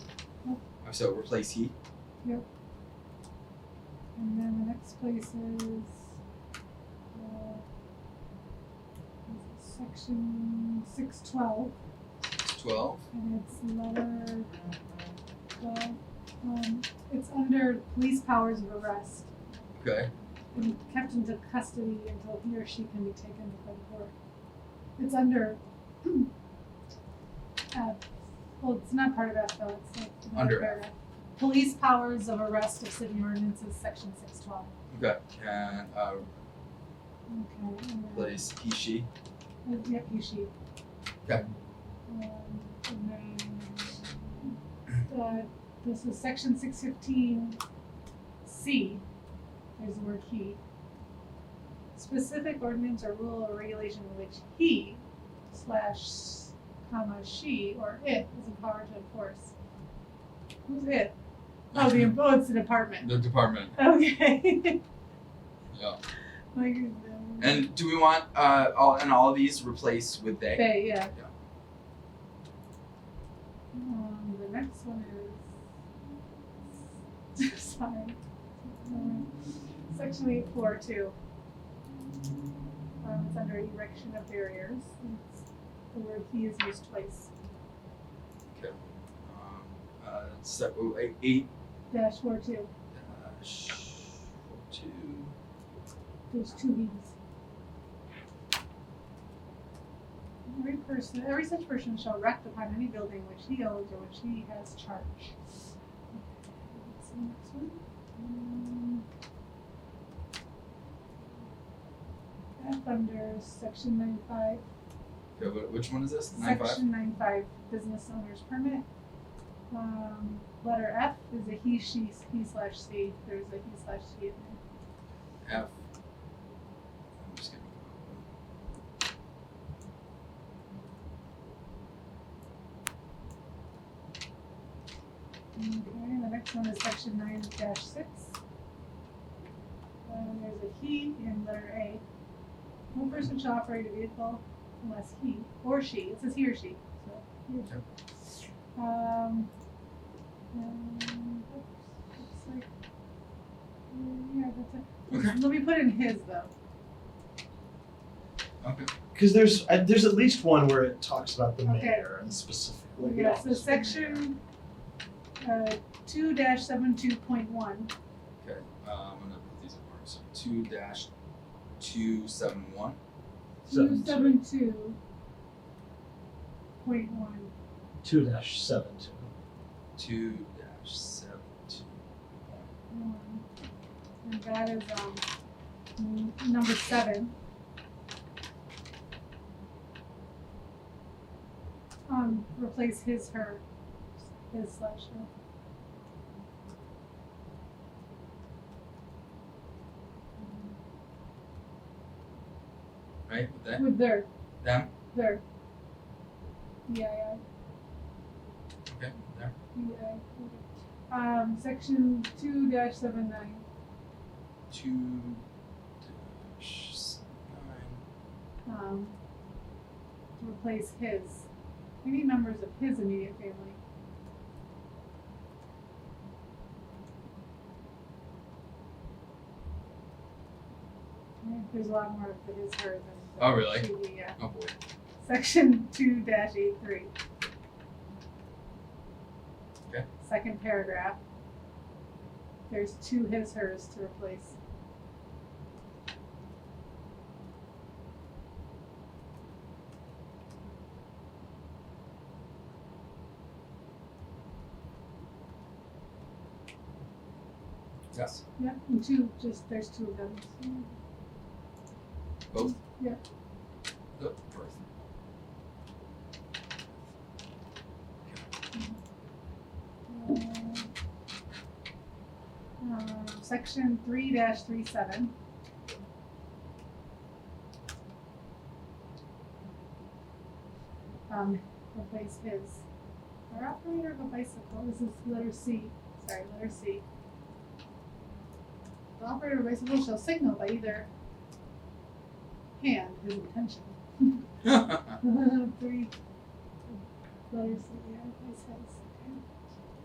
so replace he. And then the next place is uh, section six twelve, Twelve. and it's letter twelve. Um, it's under police powers of arrest, Okay. and kept into custody until he or she can be taken before the court. It's under. Uh, well, it's not part of F though. It's like another Under F. paragraph. Police powers of arrest of city ordinances, section six twelve. Okay. Can uh, Okay. and then- replace he she. Uh, Yep, you sheet. Okay. Um, and then, uh, this is section six fifteen C, there's the word he. Specific ordinance or rule or regulation in which he slash comma she or it is empowered to enforce. Who's it? Oh, the, oh, it's the department, the department. okay. Yeah. Like, um, And do we want uh all and all of these replace with they? Bay, yeah. Yeah. Um, the next one is. Sorry. Um, Section eight four two. Um, it's under erection of barriers. It's, the word he is used twice. Um, uh, so, oh, eight, eight Dash four two. dash two. There's two he's. Every person, every such person shall erect upon any building which he owns or which he has charge. What's the next one? Um, F under section nine five, Okay, wh- which one is this? Nine five. section nine five, business owner's permit. Um, letter F is a he, she, he slash she, there's a he slash she in there. F. I'm just gonna Okay, the next one is section nine dash six. Um, there's a he in letter A. No person shall operate a vehicle unless he or she, it says he or she, so. he or she. Um, um, oops, it's like, mm, yeah, that's Okay. it. Let me put in his though. Okay. Because there's uh, there's at least one where it talks about the Okay. mayor and specifically. the Yeah, so office of the mayor. section, uh, two dash seven two point one, Okay. Uh, I'm gonna put these in order. So two dash two seven one. two Seven two. seven two point one. Two dash seven two. Two dash seven two. Um, And that is, um, n- number seven. Um, replace his, her, his slash her. Right? With that? With their, Them? their. E Yeah, Okay. There. yeah, yeah. E Um, section two dash seven nine, Two dash s- nine. um, replace his. Any members of his immediate family. Yeah, There's a lot more of the his, her than. the Oh, really? she, we, yeah. Oh boy. Section two dash eight three. Okay. Second paragraph. There's two his, hers to replace. Yes. Yep, and two, just, there's two of them. so- Both? Yeah. The birth. Uh, um, Section three dash three seven. Um, replace his, or operator of a bicycle, this is letter C, sorry, letter C. The operator of a bicycle shall signal by either hand his intention. okay. Three letters that we have, it says.